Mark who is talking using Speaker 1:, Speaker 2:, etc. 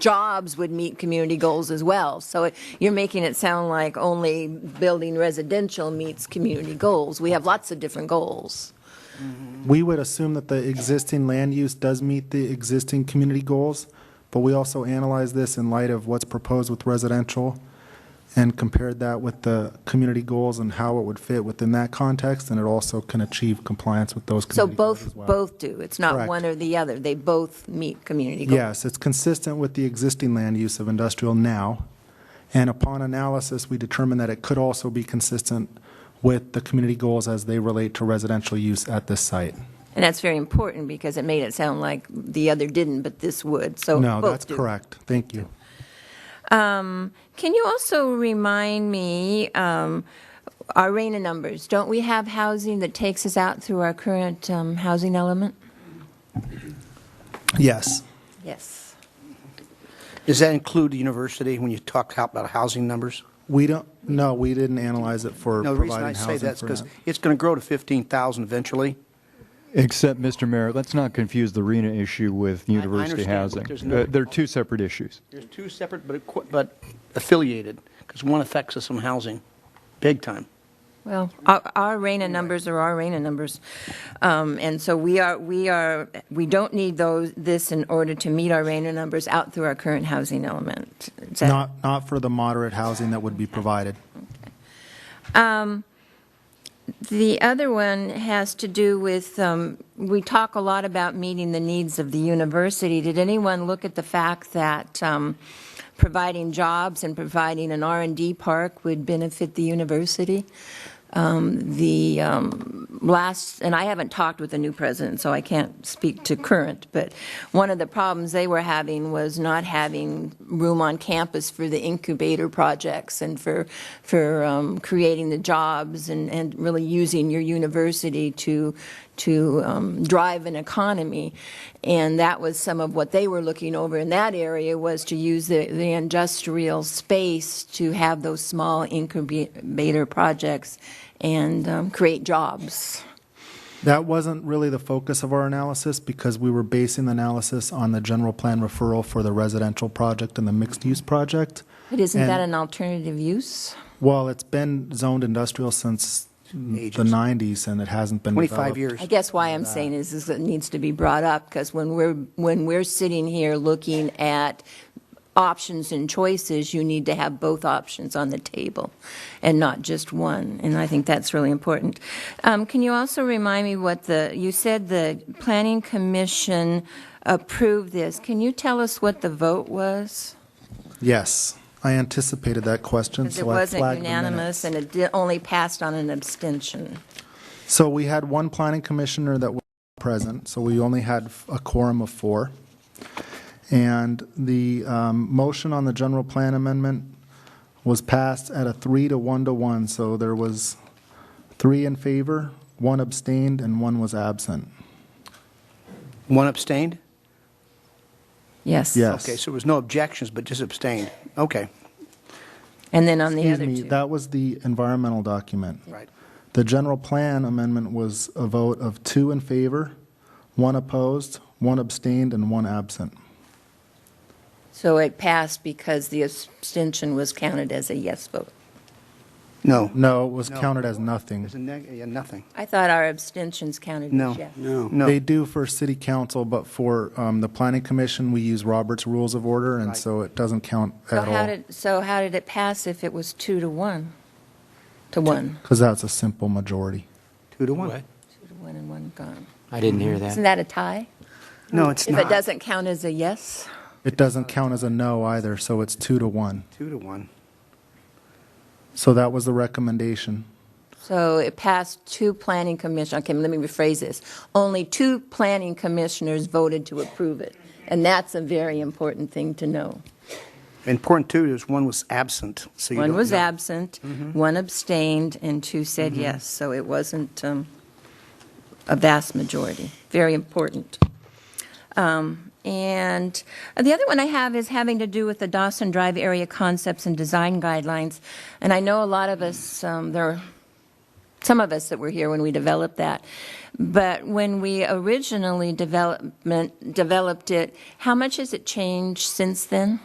Speaker 1: jobs would meet community goals as well. So it- you're making it sound like only building residential meets community goals. We have lots of different goals.
Speaker 2: We would assume that the existing land use does meet the existing community goals, but we also analyzed this in light of what's proposed with residential and compared that with the community goals and how it would fit within that context, and it also can achieve compliance with those
Speaker 1: So
Speaker 2: community goals
Speaker 1: both,
Speaker 2: as well.
Speaker 1: both do. It's not
Speaker 2: Correct.
Speaker 1: one or the other. They both meet community goals.
Speaker 2: Yes, it's consistent with the existing land use of industrial now, and upon analysis, we determined that it could also be consistent with the community goals as they relate to residential use at this site.
Speaker 1: And that's very important because it made it sound like the other didn't, but this would. So
Speaker 2: No,
Speaker 1: both
Speaker 2: that's
Speaker 1: do.
Speaker 2: correct. Thank you.
Speaker 1: Can you also remind me, um, our RENA numbers, don't we have housing that takes us out through our current um, housing element?
Speaker 2: Yes.
Speaker 1: Yes.
Speaker 3: Does that include the university when you talk ho- about housing numbers?
Speaker 2: We don't, no, we didn't analyze it for
Speaker 3: No, the reason I
Speaker 2: providing
Speaker 3: say
Speaker 2: housing
Speaker 3: that's
Speaker 2: for
Speaker 3: because
Speaker 2: that.
Speaker 3: it's going to grow to 15,000 eventually.
Speaker 4: Except, Mr. Mayor, let's not confuse the RENA issue with
Speaker 3: understand,
Speaker 4: university
Speaker 3: but
Speaker 4: housing.
Speaker 3: there's no-
Speaker 4: Uh, They're two separate issues.
Speaker 3: There's two separate but equi- but affiliated, because one affects us on housing, big time.
Speaker 1: Well, our, our RENA numbers are our RENA numbers. Um, and so we are, we are, we don't need those, this in order to meet our RENA numbers out through our current housing element. Is that-
Speaker 2: Not, not for the moderate housing that would be provided.
Speaker 1: The other one has to do with, um, we talk a lot about meeting the needs of the university. Did anyone look at the fact that um, providing jobs and providing an R&D park would benefit the university? Um, The um, last, and I haven't talked with the new president, so I can't speak to current, but one of the problems they were having was not having room on campus for the incubator projects and for, for um, creating the jobs and, and really using your university to, to um, drive an economy. And that was some of what they were looking over in that area was to use the, the industrial space to have those small incubator projects and um, create jobs.
Speaker 2: That wasn't really the focus of our analysis because we were basing the analysis on the general plan referral for the residential project and the mixed-use project.
Speaker 1: But isn't that
Speaker 2: And-
Speaker 1: an alternative use?
Speaker 2: Well, it's been zoned industrial since the
Speaker 3: Ages.
Speaker 2: 90s and it hasn't been developed.
Speaker 3: 25 years.
Speaker 1: I guess why I'm saying is, is it needs to be brought up, because when we're, when we're sitting here looking at options and choices, you need to have both options on the table, and not just one, and I think that's really important. Um, Can you also remind me what the, you said the Planning Commission approved this, can you tell us what the vote was?
Speaker 2: Yes, I anticipated that question,
Speaker 1: Because it
Speaker 2: so I
Speaker 1: wasn't
Speaker 2: flagged the
Speaker 1: unanimous,
Speaker 2: minutes.
Speaker 1: and it di- only passed on an abstention.
Speaker 2: So we had one planning commissioner that was present, so we only had f- a quorum of four. And the um, motion on the general plan amendment was passed at a three to one to one, so there was three in favor, one abstained, and one was absent.
Speaker 3: One abstained?
Speaker 1: Yes.
Speaker 2: Yes.
Speaker 3: Okay, so there was no objections, but just abstained. Okay,
Speaker 1: And then on the
Speaker 2: Excuse
Speaker 1: other
Speaker 2: me,
Speaker 1: two.
Speaker 2: That was the environmental document.
Speaker 3: right.
Speaker 2: The general plan amendment was a vote of two in favor, one opposed, one abstained, and one absent.
Speaker 1: So it passed because the abstention was counted as a yes vote.
Speaker 3: No.
Speaker 2: No, it was
Speaker 3: No.
Speaker 2: counted as nothing.
Speaker 3: There's a neg, yeah, nothing.
Speaker 1: I thought our abstentions counted
Speaker 3: No.
Speaker 1: as yes.
Speaker 3: No.
Speaker 2: They do for city council, but for um, the planning commission, we use Robert's Rules of Order, and
Speaker 3: Right.
Speaker 2: so it doesn't count
Speaker 1: So
Speaker 2: at
Speaker 1: how
Speaker 2: all.
Speaker 1: did, so how did it pass if it was two to one? To one,
Speaker 2: Because that's a simple majority.
Speaker 3: Two to one.
Speaker 1: two to one and one gone.
Speaker 5: I didn't hear that.
Speaker 1: Isn't that a tie?
Speaker 3: No, it's
Speaker 1: If
Speaker 3: not.
Speaker 1: it doesn't count as a yes?
Speaker 2: It doesn't count as a no either, so it's two to one.
Speaker 3: Two to one.
Speaker 2: So that was the recommendation.
Speaker 1: So it passed two planning commission, okay, let me rephrase this. Only two planning commissioners voted to approve it, and that's a very important thing to know.
Speaker 3: Important too is one was absent, so you
Speaker 1: One
Speaker 3: don't
Speaker 1: was
Speaker 3: know. Mm-hmm.
Speaker 1: absent, one abstained, and two said yes. So it wasn't um, a vast majority. Very important. Um, And the other one I have is having to do with the Dawson Drive area concepts and design guidelines. And I know a lot of us, um, there are some of us that were here when we developed that. But when we originally development, developed it, how much has it changed since then?